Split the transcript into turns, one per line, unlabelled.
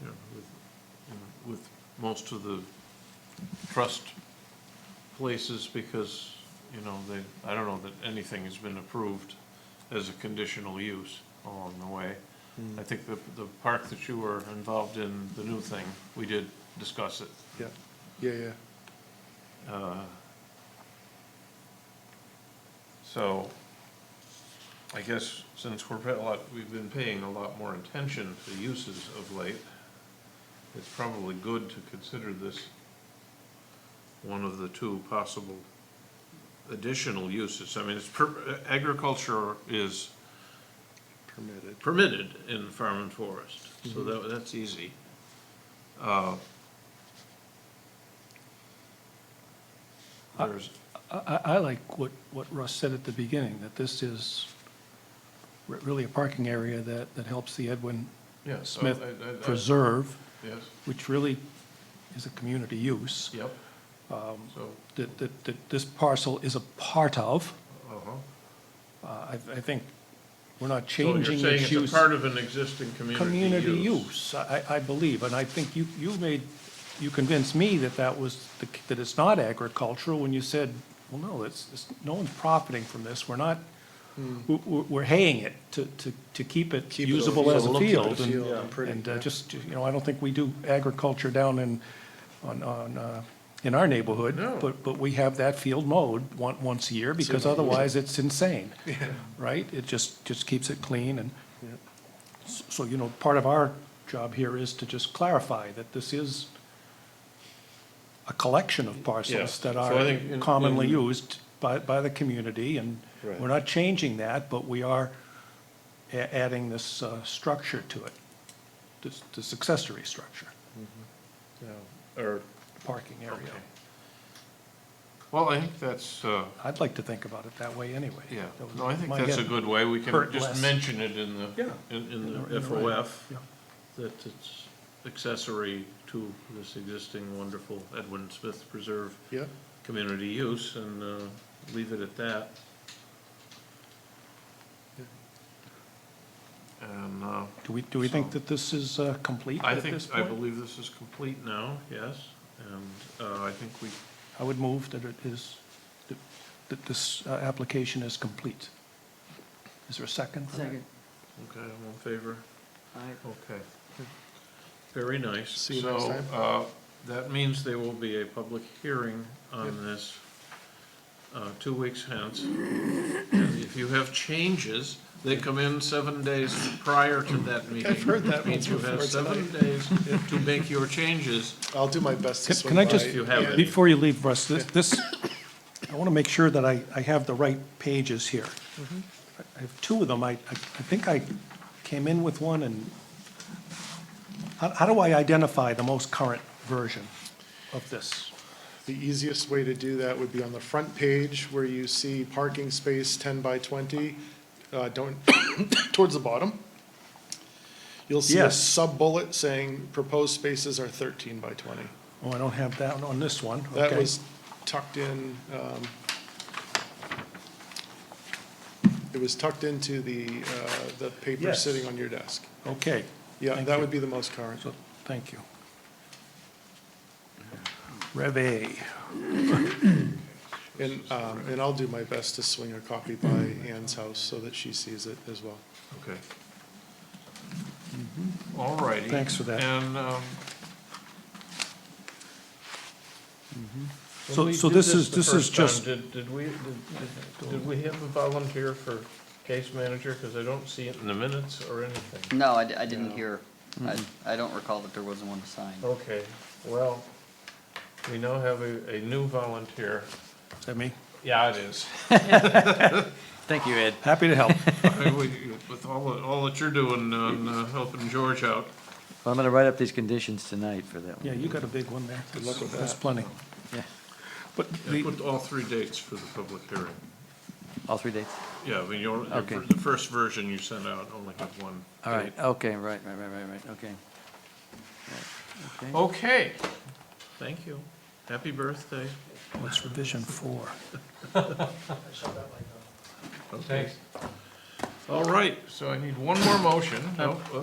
you know, with, you know, with most of the trust places because, you know, they, I don't know that anything has been approved as a conditional use along the way.
Hmm.
I think the, the park that you were involved in, the new thing, we did discuss it.
Yeah, yeah, yeah.
Uh, So, I guess since we're paying a lot, we've been paying a lot more attention to uses of late, it's probably good to consider this one of the two possible additional uses. I mean, it's, per- agriculture is
Permitted.
permitted in farm and forest, so that, that's easy. Uh, There's,
I, I I like what, what Russ said at the beginning, that this is re- really a parking area that, that helps the Edwin
Yeah, so
Smith
I- I- I-
Preserve,
Yes,
which really is a community use,
yep.
Um,
So,
that, that, that this parcel is a part of.
uh-huh.
Uh, I, I think we're not
So you're
changing
saying
its
it's
use.
a part of an existing community use?
I, I I believe, and I think you, you made, you convinced me that that was, the c- that it's not agricultural when you said, well, no, it's, it's, no one's profiting from this, we're not, we're, we're haying it to, to, to Hmm. keep it
Keep it a
usable as a
field, keep it a
field. and-
field and pretty,
And uh,
yeah.
just, you know, I don't think we do agriculture down in, on, on, uh, in our neighborhood.
No.
But, but we have that field mowed one, once a year, because otherwise it's insane, right? It just, just keeps it clean and. So, you know, part of our job here is to just clarify that this is a collection of parcels
Yeah.
that
So
are
I think in-
commonly
in-
used by, by the community, and we're
Right.
not changing that, but we are a- adding this, uh, structure to it, this, this accessory structure,
Or,
parking area.
okay. Well, I think that's, uh,
I'd like to think about it that way anyway.
yeah,
That was
no, I think
my
that's a
head.
good way. We
Hurt
can just
less.
mention it in the,
Yeah.
in, in
In the-
the
in the right.
FOF,
Yeah.
that it's accessory to this existing wonderful Edwin Smith Preserve
Yeah,
community use, and uh, leave it at that. And uh,
Do we, do we think
So-
that this is, uh, complete
I
at
think,
this
I
point?
believe this is complete now, yes, and uh, I think we,
I would move that it is, that- that this uh, application is complete. Is there a second? for that?
Second.
okay, I'm in favor,
Aye.
okay. Very nice.
See you next time.
So uh, that means there will be a public hearing on this uh, two weeks hence. And if you have changes, they come in seven days prior to that meeting.
I've heard that
Which Means you
once
have
before
seven days to make your changes.
I'll do my best to
Can-
swing
Can I
by.
just,
If you have any.
before you leave, Russ, this- this, I want to make sure that I, I have the right pages here.
Mm-hmm.
I have two of them. I, I I think I came in with one and how, how do I identify the most current version of this?
The easiest way to do that would be on the front page where you see parking space ten by twenty, uh, don't, towards the bottom. You'll see a
Yes.
sub-bullet saying proposed spaces are thirteen by twenty.
Oh, I don't have that on this one.
That
Okay.
was tucked in, um, it was tucked into the, uh, the paper
Yes.
sitting on your desk.
Okay,
Yeah,
Thank
that
you.
would be the most current.
so, thank you. Rev A.
And, um, and I'll do my best to swing a copy by Ann's house so that she sees it as well.
Okay. All righty.
Thanks for that.
And, um, Mm-hmm. when
So-
we
so
did
this is-
the
this is
first time,
just-
Did, did we, did- did, did we have a volunteer for case manager? Because I don't see it in the minutes or anything.
No, I, di- I didn't hear, I, I don't recall that there wasn't one assigned.
Okay, well, we now have a, a new volunteer.
Is that me?
Yeah, it is.
Thank you, Ed.
Happy to help.
With all, the- all that you're doing on uh, helping George out.
I'm gonna write up these conditions tonight for that
Yeah, you got a big one there. Good luck with that. That's plenty.
Yeah.
But
I
the,
put all three dates for the public hearing.
All three dates?
Yeah, I mean, you only-
Okay.
the first version you sent out only had one.
All right,
date.
okay, right, right, right, right, right, okay. Right, Okay.
Okay, thank you. Happy birthday.
what's revision four?
Okay. All right, so I need one more motion. oh, Nope.